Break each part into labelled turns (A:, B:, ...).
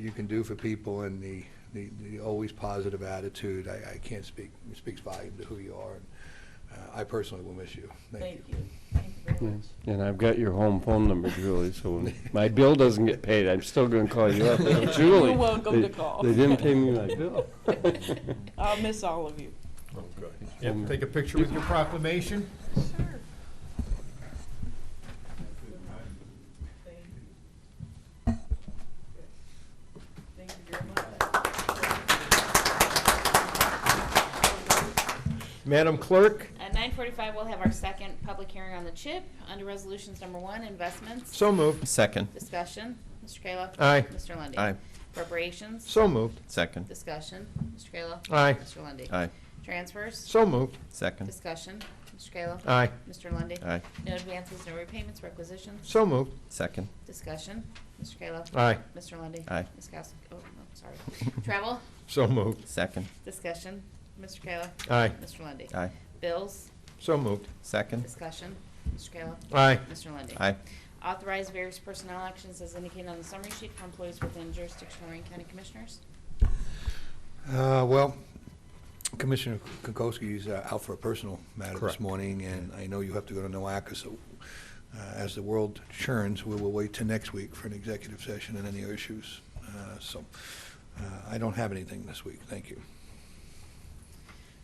A: you can do for people and the, the, the always positive attitude, I, I can't speak, it speaks volume to who you are. And uh, I personally will miss you. Thank
B: Thank
A: you.
B: you. Thank you very much.
C: And I've got your home phone number, Julie, so when my bill doesn't get paid, I'm still gonna call you up. Hey, Julie.
B: You're welcome
C: they-
B: to call.
C: They didn't pay me my bill.
B: I'll miss all of you.
D: Yep, take a picture with your proclamation.
B: Thank you. Thank you very much.
D: Madam Clerk?
E: At nine forty-five, we'll have our second public hearing on the CHIP under resolutions number one, investments.
D: So moved.
F: Second,
E: Discussion, Mr. Kayla.
D: Aye.
E: Mr. Lundy.
F: Aye.
E: Appropriations.
D: So moved.
F: second,
E: Discussion, Mr. Kayla.
D: Aye.
E: Mr. Lundy.
F: aye,
E: Transfers.
D: So moved.
F: second,
E: Discussion, Mr. Kayla.
D: Aye.
E: Mr. Lundy.
F: aye,
E: No advances, no repayments, requisitions.
D: So moved.
F: second,
E: Discussion, Mr. Kayla.
D: Aye.
E: Mr. Lundy.
F: Aye.
E: Ms. Kowski, oh, no, sorry. Travel.
D: So moved.
F: second,
E: Discussion, Mr. Kayla.
D: Aye.
E: Mr. Lundy.
F: aye,
E: Bills.
D: So moved.
F: second,
E: Discussion, Mr. Kayla.
D: Aye.
E: Mr. Lundy.
F: aye,
E: Authorize various personnel actions as indicated on the summary sheet for employees within jurisdiction of Lorraine County Commissioners.
A: Uh, Well, Commissioner Kokoski is uh, out for a personal matter this
D: Correct.
A: morning, and I know you have to go to NOACA, so uh, as the world churns, we will wait till next week for an executive session and any issues. Uh, So uh, I don't have anything this week. Thank you.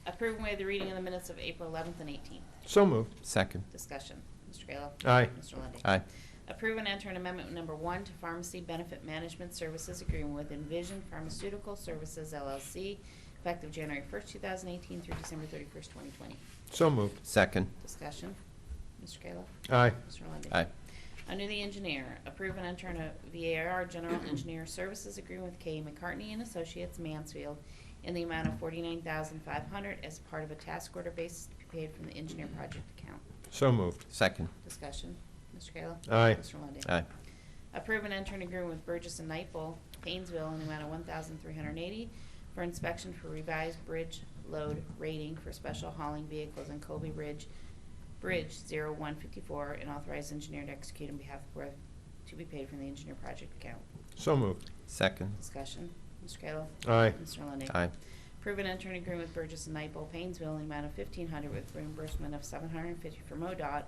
E: Approve and waive the reading of the minutes of April 11th and 18th.
D: So moved.
F: second,
E: Discussion. Mr. Kayla.
D: Aye.
E: Mr. Lundey.
F: aye,
E: Approve and enter an amendment number one to pharmacy benefit management services agreement with Envision Pharmaceutical Services LLC effective January 1st, 2018 through December 31st, 2020.
D: So moved.
F: second,
E: Discussion. Mr. Kayla.
D: Aye.
E: Mr. Lundey.
F: aye,
E: Under the engineer, approve and enter in a VAR General Engineer Services Agreement with K. McCartney and Associates Mansfield in the amount of forty-nine thousand five hundred as part of a task order basis to be paid from the engineer project account.
D: So moved.
F: second,
E: Discussion, Mr. Kayla?
D: Aye.
E: Mr. Lundey?
F: aye,
E: Approve and enter an agreement with Burgess and Nyepel, Painesville, in the amount of one thousand three hundred and eighty for inspection for revised bridge load rating for special hauling vehicles in Colby Ridge, Bridge zero one fifty-four, and authorize engineer to execute on behalf of Worth to be paid from the engineer project account.
D: So moved.
F: second,
E: Discussion, Mr. Kayla.
D: Aye.
E: Mr. Lundey.
F: aye,
E: Approve and enter an agreement with Burgess and Nyepel, Painesville, in the amount of fifteen hundred with reimbursement of seven hundred and fifty for MoDOT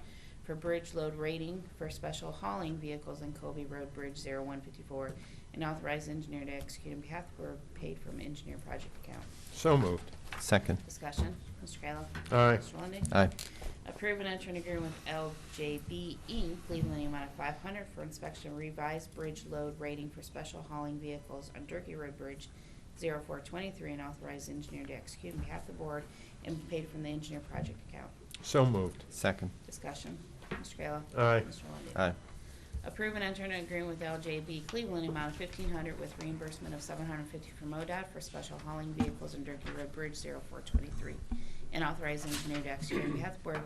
E: for bridge load rating for special hauling vehicles in Colby Road Bridge zero one fifty-four, and authorize engineer to execute on behalf of Borough paid from engineer project account.
D: So moved.
F: second,
E: Discussion, Mr. Kayla.
D: Aye.
E: Mr. Lundey.
F: aye,
E: Approve and enter an agreement with LJB Inc., Cleveland, in E, the amount of five hundred for inspection of revised bridge load rating for special hauling vehicles on Turkey Road Bridge 0423 and authorize engineer to execute on behalf of the board and be paid from the engineer project account.
D: So moved.
F: second,
E: Discussion. Mr. Kayla.
D: Aye.
E: Mr. Lundey.
F: aye,
E: Approve and enter an agreement with LJB Cleveland, in the amount of fifteen hundred with reimbursement of seven hundred and fifty from MoDOT for special hauling vehicles on Turkey Road Bridge 0423, and authorize engineer to execute on behalf of the board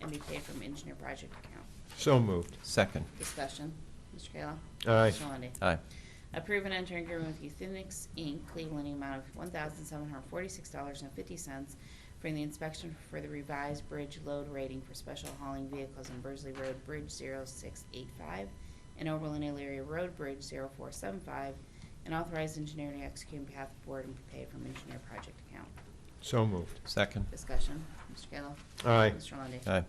E: and be paid from engineer project account.
D: So moved.
F: second,
E: Discussion. Mr. Kayla.
D: Aye.
E: Mr. Lundey.
F: aye,
E: Approve and enter agreement with Euthenix Inc., Cleveland, in the amount of one thousand seven hundred forty-six dollars and fifty cents for the inspection for the revised bridge load rating for special hauling vehicles on Burzley Road Bridge zero six eight five and Oberlin Elyria Road Bridge zero four seven five, and authorize engineer to execute on behalf of the board and be paid from engineer project account.
D: So moved.
F: second,
E: Discussion. Mr. Kayla.
D: Aye.
E: Mr. Lundey.
F: aye,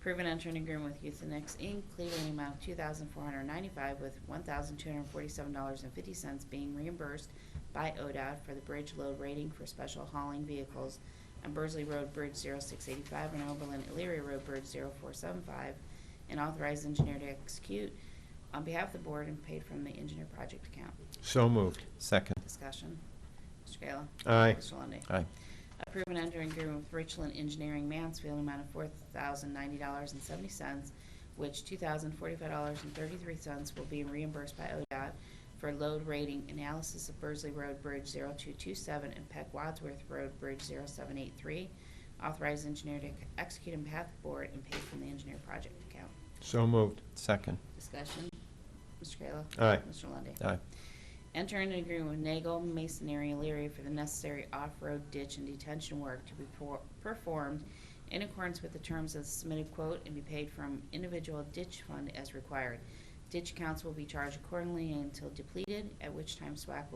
E: Proven enter an agreement with Euthenix Inc., Cleveland, in the amount of two thousand four hundred ninety-five, with one thousand two hundred forty-seven dollars and fifty cents being reimbursed by ODOT for the bridge load rating for special hauling vehicles on Burzley Road Bridge zero six eighty-five and Oberlin Elyria Road Bridge zero four seven five, and authorized engineer to execute on behalf of the board and paid from the engineer project account.
D: So moved.
F: second,
E: Discussion. Mr. Kayla.
D: Aye.
E: Mr. Lundey.
F: aye,
E: Approve and enter agreement with Richland Engineering Mansfield, amount of four thousand ninety dollars and seventy cents, which two thousand forty-five dollars and thirty-three cents will be reimbursed by ODOT for load rating analysis of Burzley Road Bridge 0227 and Peck Wadsworth Road Bridge 0783. Authorize engineer to execute on behalf of the board and pay from the engineer project account.
D: So moved.
F: second,
E: Discussion. Mr. Kayla.
D: Aye.
E: Mr. Lundey.
F: aye,
E: Enter an agreement with Nagel Masonry Leary for the necessary off-road ditch and detention work to be por- performed in accordance with the terms of the submitted quote and be paid from individual ditch fund as required. Ditch accounts will be charged accordingly until depleted, at which time SWAC will